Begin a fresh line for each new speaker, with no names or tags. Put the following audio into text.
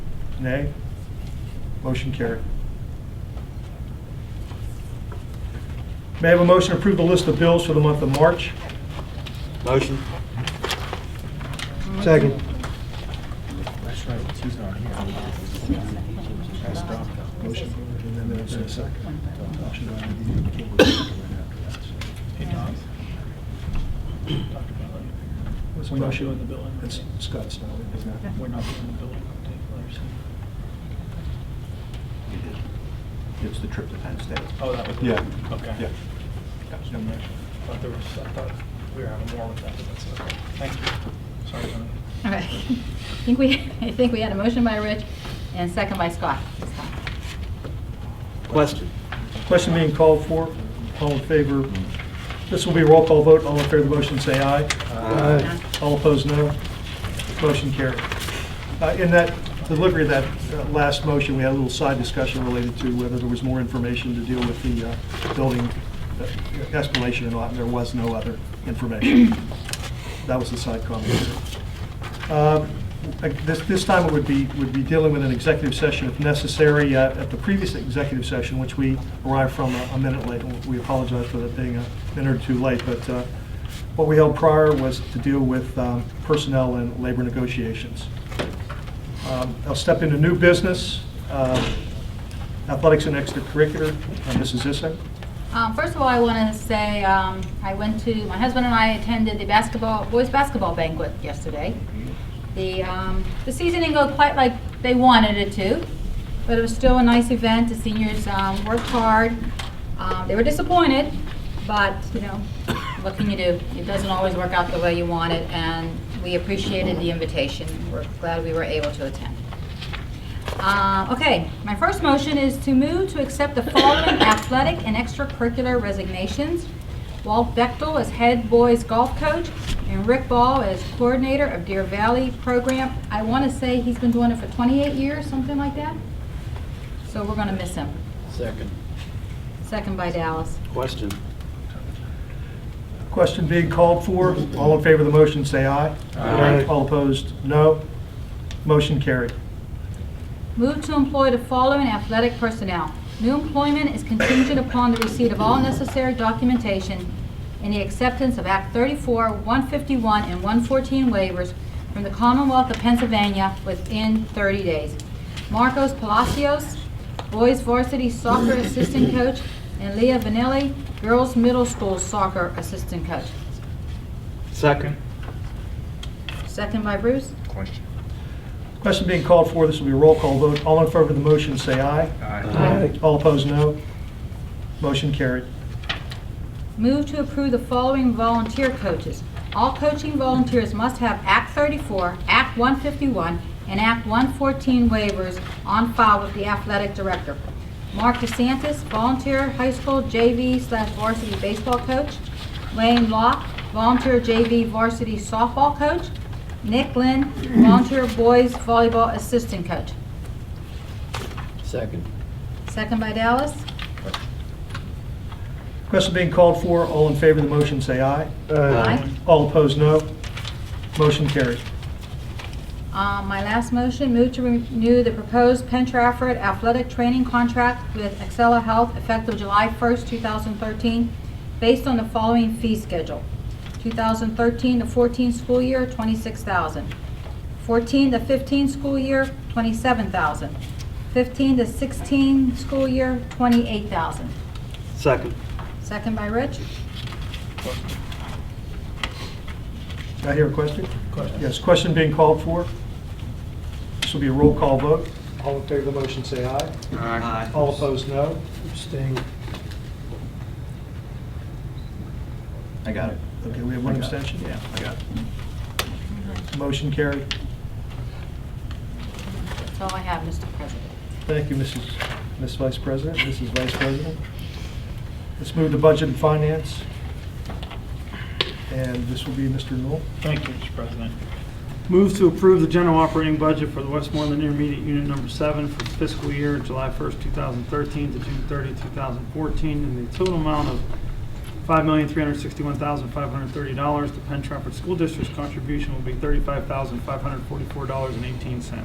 Nay? Motion carried. May I have a motion to approve the list of bills for the month of March?
Motion.
Second.
That's right, she's not here. Motion, and then there's a second. What's the motion on the bill? It's Scott's now. We're not doing the bill
It's the trip to Penn State.
Oh, that was.
Yeah.
Okay.
Yeah.
I thought there was, I thought we were having more with that, but that's okay. Thank you. Sorry, Tony.
All right. I think we, I think we had a motion by Rich and second by Scott. this time.
Question.
Question being called for, all in favor. This will be a roll call vote, all in favor of the motion, say aye.
Aye.
All opposed, no. Motion carried. Uh, In that delivery of that uh, last motion, we had a little side discussion related to whether there was more information to deal with the uh, building escalation or not, and there was no other information. That was the side comment. Uh, This, this time it would be, would be dealing with an executive session if necessary. Uh, At the previous executive session, which we arrived from a- a minute late, and we apologize for that being a minute or two late, but uh, what we held prior was to deal with um, personnel and labor negotiations. Um, I'll step into new business, um, athletics and extracurricular, Uh, Mrs. Zissou.
Um, First of all, I want to say, um, I went to, my husband and I attended the basketball, boys' basketball banquet yesterday. The, um, the season didn't go quite like they wanted it to, but it was still a nice event. The seniors um, worked hard. Um, They were disappointed, but, you know, what can you do? It doesn't always work out the way you want it, and we appreciated the invitation. We're glad we were able to attend. Uh, Okay, my first motion is to move to accept the following athletic and extracurricular resignations. Walt Bechtel as head boys golf coach and Rick Ball as coordinator of Deer Valley program. I want to say he's been doing it for 28 years, something like that. So we're going to miss him.
Second.
Second by Dallas.
Question.
Question being called for, all in favor of the motion, say aye.
Aye.
All opposed, no. Motion carried.
Move to employ the following athletic personnel. New employment is contingent upon the receipt of all necessary documentation and the acceptance of Act 34, 151, and 114 waivers from the Commonwealth of Pennsylvania within 30 days. Marcos Palacios, boys varsity soccer assistant coach, and Leah Vanelli, girls middle school soccer assistant coach.
Second.
Second by Bruce.
Question.
Question being called for, this will be a roll call vote. All in favor of the motion, say aye.
Aye.
All opposed, no. Motion carried.
Move to approve the following volunteer coaches. All coaching volunteers must have Act 34, Act 151, and Act 114 waivers on file with the athletic director. Mark DeSantis, volunteer high school JV slash varsity baseball coach. Wayne Locke, volunteer JV varsity softball coach. Nick Lynn, volunteer boys volleyball assistant coach.
Second.
Second by Dallas.
Question being called for, all in favor of the motion, say aye.
Aye.
All opposed, no. Motion carried.
Uh, My last motion, move to renew the proposed Penn Trafford athletic training contract with Accela Health effective July 1st, 2013, based on the following fee schedule. 2013 to 14 school year, 26000 14 to 15 school year, 27000 15 to 16 school year, 28000
Second.
Second by Rich.
Did I hear a question?
Question.
Yes, question being called for. This will be a roll call vote. All in favor of the motion, say aye.
Aye.
All opposed, no.
Abstain.
I got it.
Okay, we have one abstention?
Yeah, I got it.
Motion carried.
That's all I have, Mr. President.
Thank you, Mrs. Miss Vice President, Mrs. Vice President. Let's move to Budget and Finance. And this will be Mr. Newell.
Thank you, Mr. President.
Move to approve the general operating budget for the Westmoreland Intermediate Unit Number 7 for fiscal year July 1st, 2013 to June 30, 2014, in the total amount of $5,361,530. The Penn Trafford School District's contribution will be $35,544.18.